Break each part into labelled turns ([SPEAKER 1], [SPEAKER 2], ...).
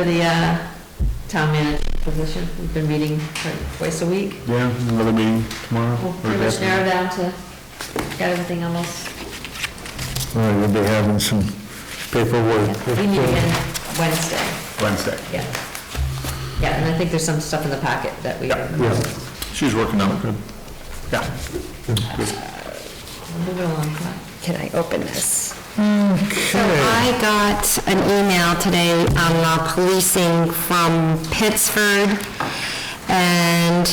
[SPEAKER 1] For the uh, town manager position, we've been meeting for twice a week.
[SPEAKER 2] Yeah, another meeting tomorrow.
[SPEAKER 1] We'll
[SPEAKER 2] or
[SPEAKER 1] pretty much
[SPEAKER 2] that-
[SPEAKER 1] narrow down to, got everything almost,
[SPEAKER 2] All right, we'll be having some paperwork.
[SPEAKER 1] yeah, we meet again Wednesday,
[SPEAKER 2] Wednesday.
[SPEAKER 1] yeah. Yeah, and I think there's some stuff in the packet that we,
[SPEAKER 2] Yeah, she's working on it, good. Yeah.
[SPEAKER 1] moving along.
[SPEAKER 3] Can I open this?
[SPEAKER 2] Mm-hmm.
[SPEAKER 3] So
[SPEAKER 2] Okay.
[SPEAKER 3] I got an email today on uh, policing from Pittsford, and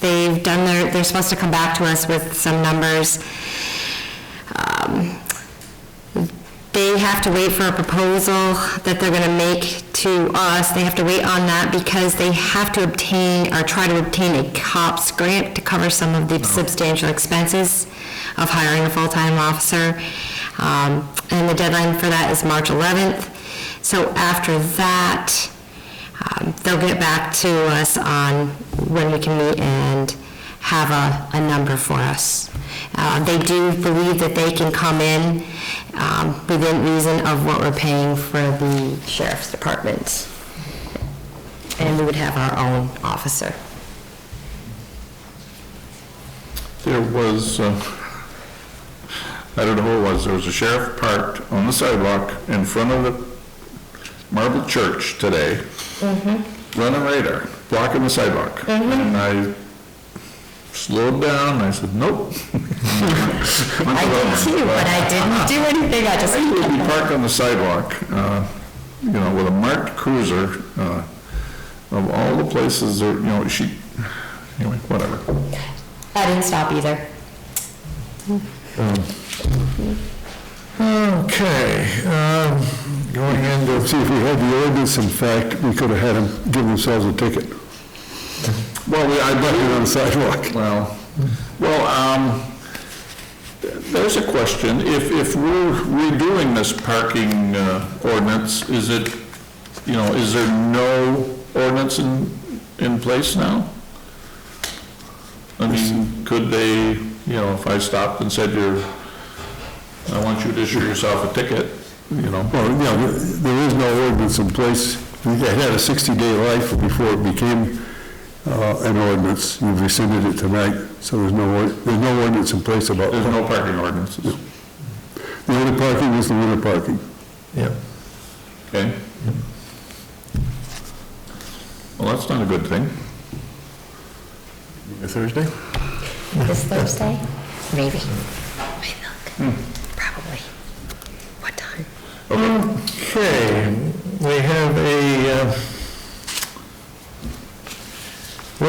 [SPEAKER 3] they've done their, they're supposed to come back to us with some numbers. Um, They have to wait for a proposal that they're gonna make to us, they have to wait on that because they have to obtain, or try to obtain a COPS grant to cover some of the substantial expenses of hiring a full-time officer. Um, And the deadline for that is March 11th. So after that, um, they'll get back to us on when we can meet and have a, a number for us. Uh, They do believe that they can come in um, within reason of what we're paying for the sheriff's department. And we would have our own officer.
[SPEAKER 2] There was, uh, I don't know who it was, there was a sheriff parked on the sidewalk in front of the marble church today. Running radar, blocking the sidewalk. And I slowed down, I said, nope.
[SPEAKER 3] I did too, but I didn't do anything, I just,
[SPEAKER 2] I would be parked on the sidewalk, uh, you know, with a marked cruiser, uh, of all the places, that, you know, she, anyway, whatever.
[SPEAKER 3] I didn't stop either.
[SPEAKER 4] Okay, um, going into, see if we had the ordinance, in fact, we could have had them give themselves a ticket.
[SPEAKER 2] Well, we- I
[SPEAKER 4] Parking on the sidewalk.
[SPEAKER 2] Well, well, um, there's a question. If, if we're redoing this parking uh, ordinance, is it, you know, is there no ordinance in, in place now? I mean, could they, you know, if I stopped and said, you're, I want you to issue yourself a ticket, you know?
[SPEAKER 4] Well, yeah, there- there is no ordinance in place. It had a 60-day life before it became uh, an ordinance. You've rescinded it tonight, so there's no, ord- there's no ordinance in place about,
[SPEAKER 2] There's
[SPEAKER 4] the
[SPEAKER 2] no parking ordinances.
[SPEAKER 4] only parking is the winter parking.
[SPEAKER 2] Yep. Okay. Well, that's not a good thing.
[SPEAKER 4] Thursday?
[SPEAKER 3] This Thursday? Maybe. I think, probably. What time?
[SPEAKER 2] Okay, we have a uh,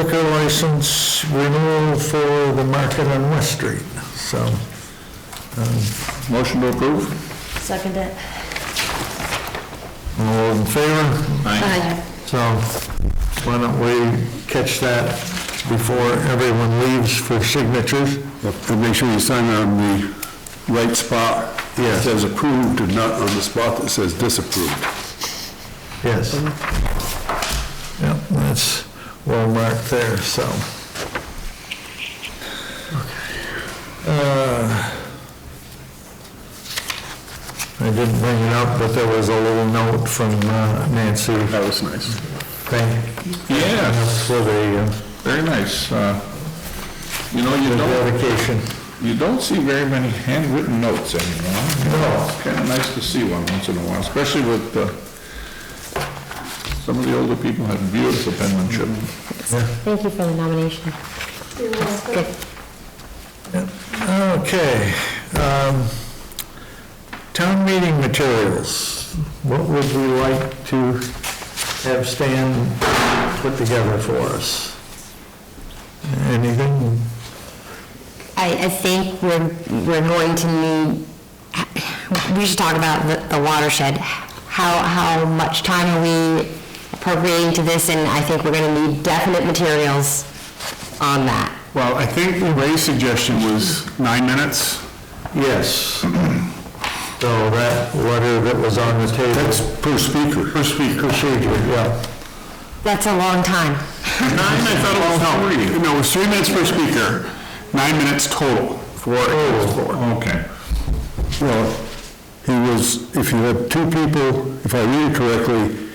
[SPEAKER 2] liquor license renewal for the market on West Street, so. Motion to approve?
[SPEAKER 1] Second it.
[SPEAKER 2] All in favor?
[SPEAKER 1] Aye.
[SPEAKER 5] So why don't we catch that before everyone leaves for signatures?
[SPEAKER 4] And make sure you sign on the right spot. Yes. Says approved and not on the spot that says disapproved.
[SPEAKER 5] Yes. Yep, that's well marked there, so. Uh, I didn't bring it up, but there was a little note from uh, Nancy. That was nice. Thank you
[SPEAKER 2] Yeah,
[SPEAKER 5] for the uh,
[SPEAKER 2] very nice. Uh, You know, you
[SPEAKER 5] the
[SPEAKER 2] don't,
[SPEAKER 5] dedication.
[SPEAKER 2] you don't see very many handwritten notes anymore. No. Kind of nice to see one once in a while, especially with, uh, some of the older people have beautiful penmanship.
[SPEAKER 3] Thank you for the nomination.
[SPEAKER 5] Okay, um, town meeting materials, what would we like to have Stan put together for us? Anything?
[SPEAKER 3] I, I think we're, we're going to need, we should talk about the- the watershed. How, how much time are we appropriating to this, and I think we're gonna need definite materials on that.
[SPEAKER 6] Well, I think Ray's suggestion was nine minutes.
[SPEAKER 5] Yes. So that letter that was on the table. That's per speaker. Per speaker. Procedure, yeah.
[SPEAKER 3] That's a long time.
[SPEAKER 6] Nine, I thought it was three. No, it was three minutes per speaker, nine minutes total. Four.
[SPEAKER 4] Oh,
[SPEAKER 2] Okay.
[SPEAKER 4] Well, he was, if you have two people, if I read it correctly,